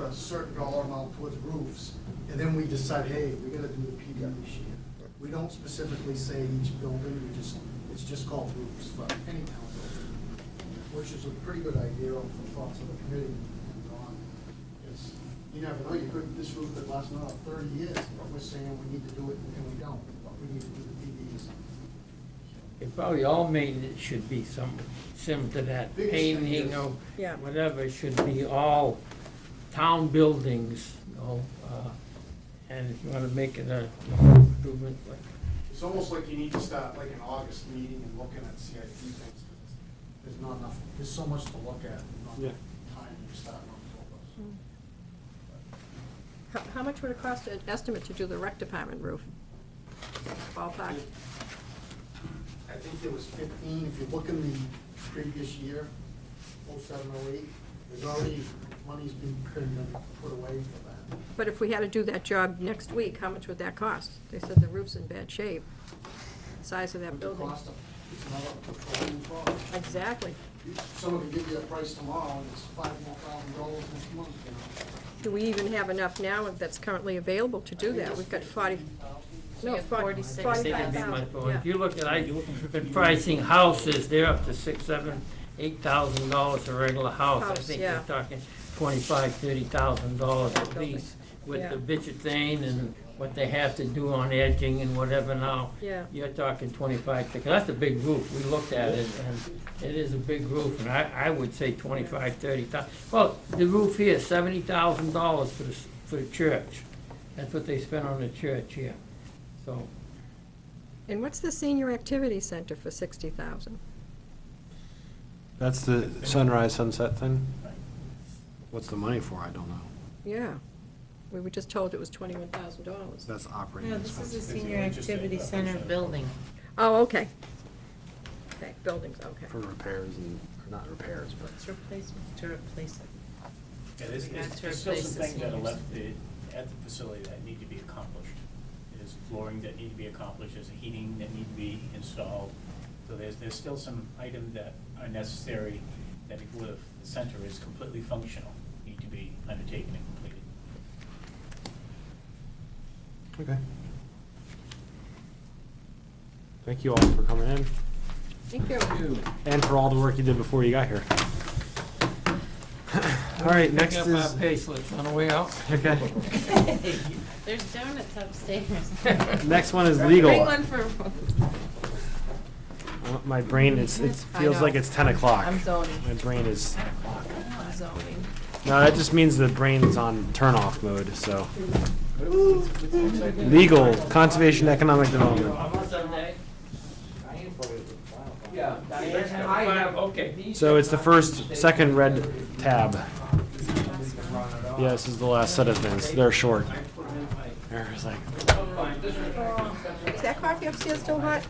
a certain dollar amount towards roofs, and then we decide, hey, we gotta do the PD this year. We don't specifically say each building, we just, it's just called roofs for any town building, which is a pretty good idea of the thoughts of the committee and Don. Is, you never know, you could, this roof could last another thirty years, but we're saying we need to do it and we don't, but we need to do the PDs. If probably all maintenance should be some, similar to that, Biggest thing painting is- or Yeah. whatever, should be all town buildings, you know, uh, and if you wanna make it a improvement, like, It's almost like you need to start like an August meeting and looking at CIP things. 'cause There's not enough, there's so much to look at, not Yeah. enough time to start on Mm. How, how much would it cost an estimate to do the rec department roof? Ballpark, I think there was fifteen, if you look in the previous year, oh seven, oh eight, there's already, money's been put in- put away for that. but if we had to do that job next week, how much would that cost? They said the roof's in bad shape, size of that The building. cost of, it's another petroleum product. Exactly. Someone could give you a price tomorrow, and it's five more thousand dollars next month, you know. Do we even have enough now that's currently available to do that? We've got forty, no, have forty, 46. forty-five they can be thousand. much more. If Yeah. you look at, I, been pricing houses, they're up to six, seven, eight thousand dollars a regular house. I House, think yeah. they're talking twenty-five, thirty thousand dollars at Building. least, with Yeah. the bitchetane and what they have to do on edging and whatever now. Yeah. You're talking twenty-five, because that's a big roof, we looked at it, and it is a big roof, and I, I would say twenty-five, thirty thousand. Well, the roof here, seventy thousand dollars for the, s- for the church, that's what they spent on the church here, so. And what's the senior activity center for sixty thousand? That's the sunrise sunset thing? What's the money for? I don't know. Yeah, we were just told it was twenty-one thousand dollars. That's operating No, this is a expenses. senior activity center building. Oh, okay. Okay, buildings, okay. For repairs and, or not repairs, but. It's replacement, to replace it. Yeah, there's, Not there's to there's still replace some the things that are seniors. left the- at the facility that need to be accomplished. There's flooring that need to be accomplished, there's heating that need to be installed. So there's, there's still some items that are necessary that before the the center is completely functional, need to be undertaken and completed. Okay. Thank you all for coming in Thank you. and for all the work you did before you got here. All right, next Pick up is, our pay slips on the way out. okay, There's donuts upstairs. next one is Bring legal. one for. My brain is, it I feels know. like it's ten o'clock. I'm zoning. My brain is, I'm zoning. no, that just means the brain's on turn off mode, so. Legal, conservation, economic development. Yeah. Five, okay. So it's the first, second red tab. Yeah, this is the last set of things. They're short. There's like, Is that coffee upstairs still hot?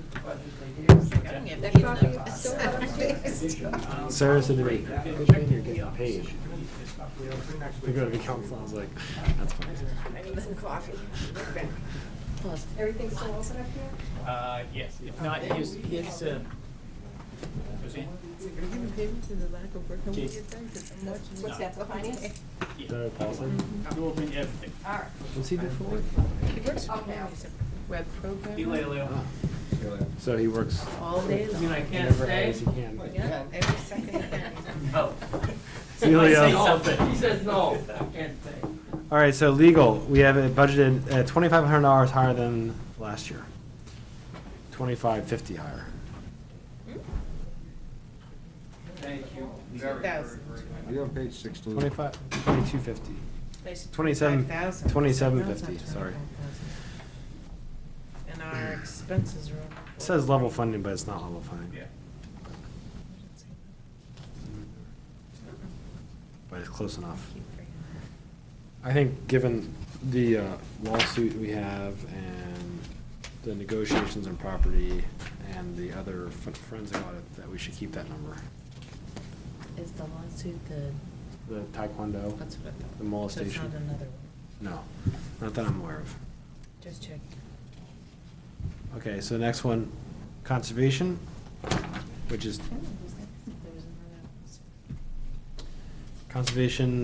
That coffee is still hot upstairs? Sarah said to me, "Good thing you're getting paid. To go to the council, I was like, that's funny. I need some coffee. Everything's still open up here? Uh, yes, if not, here's, here's, uh, Roseanne? What's that, the finance? No, Paulson? We'll open everything. Was he there for it? Web Be program, later, Leo. So he works all day long. I can't whenever stay. as he can. Yeah, every second. Oh. Celia. He says no, I can't stay. All right, so legal, we have it budgeted at twenty-five hundred dollars higher than last year. Twenty-five fifty higher. Hmm? Thank you. Thousand. You're on page sixteen. Twenty-five, twenty-two fifty. They should 27 $25,000. 27.50, $25,000. sorry. And our expenses are. up. It says level funding, but it's not level funding. Yeah. But it's close enough. Keep bringing that. I think, given the uh, lawsuit we have and the negotiations on property and the other fo- forensic audit, that we should keep that number. Is the lawsuit the, The taekwondo, what's with? the So it's not molestation. another one, No, not that I'm aware of. just check. Okay, so next one, conservation, which is There was another one. conservation